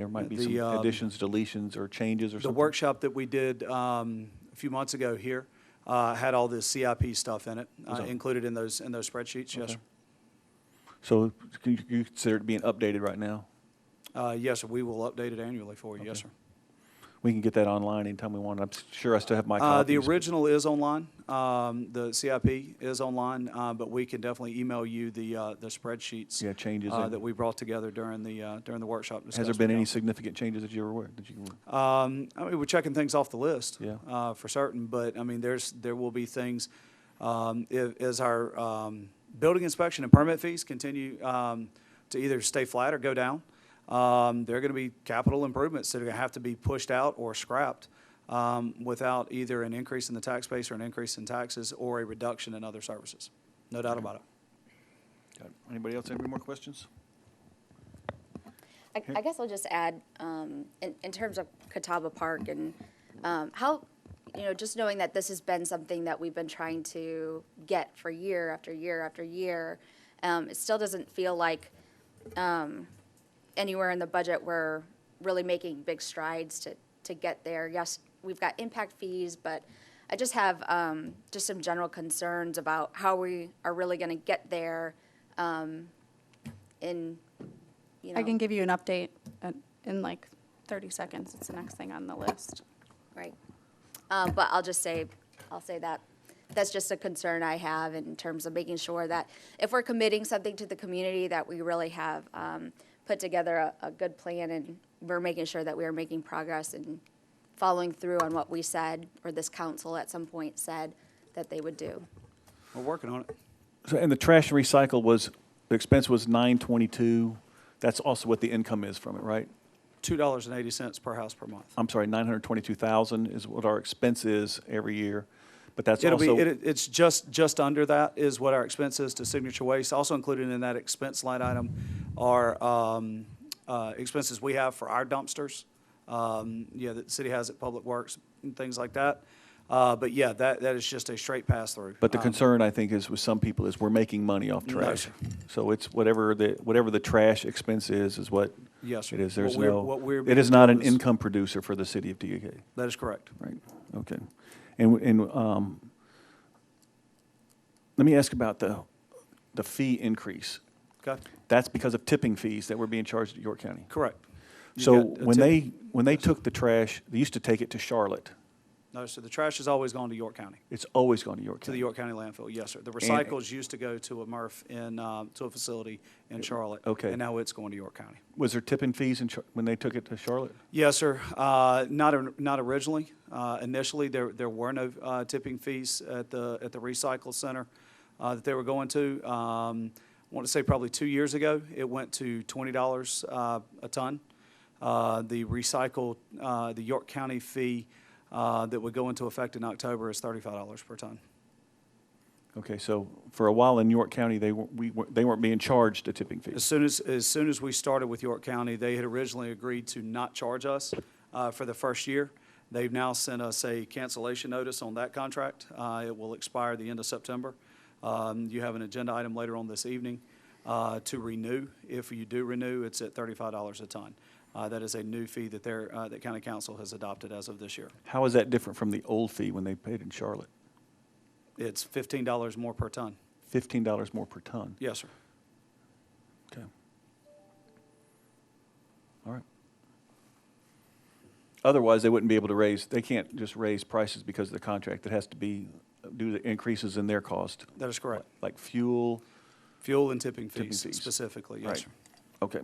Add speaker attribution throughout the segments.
Speaker 1: There might be
Speaker 2: The,
Speaker 1: some
Speaker 2: um,
Speaker 1: additions, deletions, or changes or
Speaker 2: The
Speaker 1: something.
Speaker 2: workshop that we did um, a few months ago here uh, had all the CIP stuff in it, uh,
Speaker 1: Was that-
Speaker 2: included in those, in those spreadsheets, yes.
Speaker 1: Okay. So can you- you consider it being updated right now?
Speaker 2: Uh, Yes, sir, we will update it annually for you, yes, sir.
Speaker 1: We can get that online anytime we want. I'm sure I still have my
Speaker 2: Uh,
Speaker 1: copies.
Speaker 2: The original is online, um, the CIP is online, uh, but we can definitely email you the, uh, the spreadsheets.
Speaker 1: Yeah, changes
Speaker 2: uh,
Speaker 1: and-
Speaker 2: That we brought together during the, uh, during the workshop
Speaker 1: Has
Speaker 2: discussion.
Speaker 1: there been any significant changes that you were aware, that you were?
Speaker 2: Um, I mean, we're checking things off the list.
Speaker 1: Yeah.
Speaker 2: Uh, for certain, but I mean, there's, there will be things, um, i- as our, um, building inspection and permit fees continue, um, to either stay flat or go down. Um, there are gonna be capital improvements that are gonna have to be pushed out or scrapped, um, without either an increase in the tax base or an increase in taxes or a reduction in other services. No doubt about it.
Speaker 1: Anybody else have any more questions?
Speaker 3: I, I guess I'll just add, um, in, in terms of Catawba Park and, um, how, you know, just knowing that this has been something that we've been trying to get for year after year after year, um, it still doesn't feel like, um, anywhere in the budget we're really making big strides to, to get there. Yes, we've got impact fees, but I just have um, just some general concerns about how we are really going to get there um, in, you know.
Speaker 4: I can give you an update at- in like 30 seconds. It's the next thing on the list.
Speaker 3: Right. Um, But I'll just say, I'll say that, that's just a concern I have in terms of making sure that if we're committing something to the community, that we really have um, put together a, a good plan and we're making sure that we are making progress and following through on what we said, or this council at some point said that they would do.
Speaker 2: We're working on it.
Speaker 1: So, and the trash and recycle was, the expense was nine twenty-two. That's also what the income is from it, right?
Speaker 2: Two dollars and eighty cents per house per month.
Speaker 1: I'm sorry, nine hundred twenty-two thousand is what our expense is every year, but that's
Speaker 2: It'll be,
Speaker 1: also,
Speaker 2: it- it's just, just under that is what our expense is to Signature Waste. Also included in that expense line item are um, uh, expenses we have for our dumpsters, um, yeah, that the city has at Public Works and things like that. Uh, But yeah, that, that is just a straight pass-through.
Speaker 1: but the
Speaker 2: Um,
Speaker 1: concern, I think, is with some people is we're making money off
Speaker 2: No,
Speaker 1: trash.
Speaker 2: sir.
Speaker 1: So it's whatever the, whatever the trash expense is, is what
Speaker 2: Yes, sir.
Speaker 1: it is. There's
Speaker 2: What we're-
Speaker 1: no,
Speaker 2: what we're
Speaker 1: it is
Speaker 2: being
Speaker 1: not
Speaker 2: told
Speaker 1: an
Speaker 2: is-
Speaker 1: income producer for the city of DUK.
Speaker 2: That is correct.
Speaker 1: Right, okay. And, w- and, um, let me ask about the, the fee increase.
Speaker 2: Okay?
Speaker 1: That's because of tipping fees that were being charged at York County.
Speaker 2: Correct. You
Speaker 1: So
Speaker 2: got a
Speaker 1: when
Speaker 2: tip-
Speaker 1: they, when they took the trash, they used to take it to Charlotte.
Speaker 2: No, so the trash has always gone to York County,
Speaker 1: It's always gone to York
Speaker 2: to the
Speaker 1: County.
Speaker 2: York County landfill, yes, sir. The recycles used to go to a MRF in, um, to a facility in Charlotte.
Speaker 1: okay.
Speaker 2: And now it's going to York County.
Speaker 1: Was there tipping fees in, Char- when they took it to Charlotte?
Speaker 2: Yes, sir. Uh, Not, or- not originally. Uh, Initially, there, there were no uh, tipping fees at the, at the recycle center uh, that they were going to. Um, I want to say probably two years ago, it went to $20 uh, a ton. Uh, The recycle, uh, the York County fee uh, that would go into effect in October is $35 per ton.
Speaker 1: Okay, so for a while in York County, they weren't, we weren't, they weren't being charged a tipping fee.
Speaker 2: As soon as, as soon as we started with York County, they had originally agreed to not charge us uh, for the first year. They've now sent us a cancellation notice on that contract. Uh, It will expire the end of September. Um, You have an agenda item later on this evening uh, to renew. If you do renew, it's at thirty-five dollars a ton. Uh, That is a new fee that their, uh, that county council has adopted as of this year.
Speaker 1: How is that different from the old fee when they paid in Charlotte?
Speaker 2: It's fifteen dollars more per ton.
Speaker 1: Fifteen dollars more per ton?
Speaker 2: Yes, sir.
Speaker 1: Okay. All right. Otherwise, they wouldn't be able to raise, they can't just raise prices because of the contract. It has to be due to increases in their cost,
Speaker 2: That is correct.
Speaker 1: like fuel.
Speaker 2: Fuel and tipping
Speaker 1: Tipping
Speaker 2: fees
Speaker 1: fees.
Speaker 2: specifically,
Speaker 1: Right.
Speaker 2: yes, sir.
Speaker 1: Okay.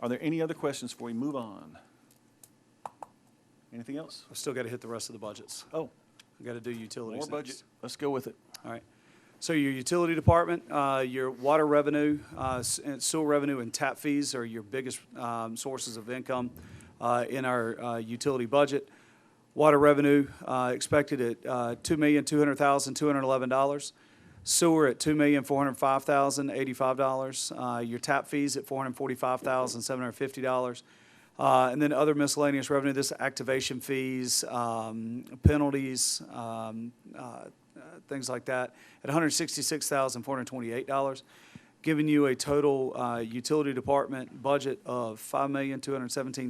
Speaker 1: Are there any other questions before we move on? Anything else?
Speaker 2: I've still got to hit the rest of the budgets.
Speaker 1: Oh,
Speaker 2: I got to do utilities
Speaker 1: more budget.
Speaker 2: next.
Speaker 1: Let's go with it.
Speaker 2: All right. So your utility department, uh, your water revenue, uh, s- and sewer revenue, and tap fees are your biggest um, sources of income uh, in our uh, utility budget. Water revenue uh, expected at uh, $2,200,211. Sewer at $2,405,085. Uh, Your tap fees at $445,750. Uh, And then other miscellaneous revenue, this activation fees, um, penalties, um, uh, uh, things like that, at $166,428. giving you a total uh, utility department budget of five million two hundred seventeen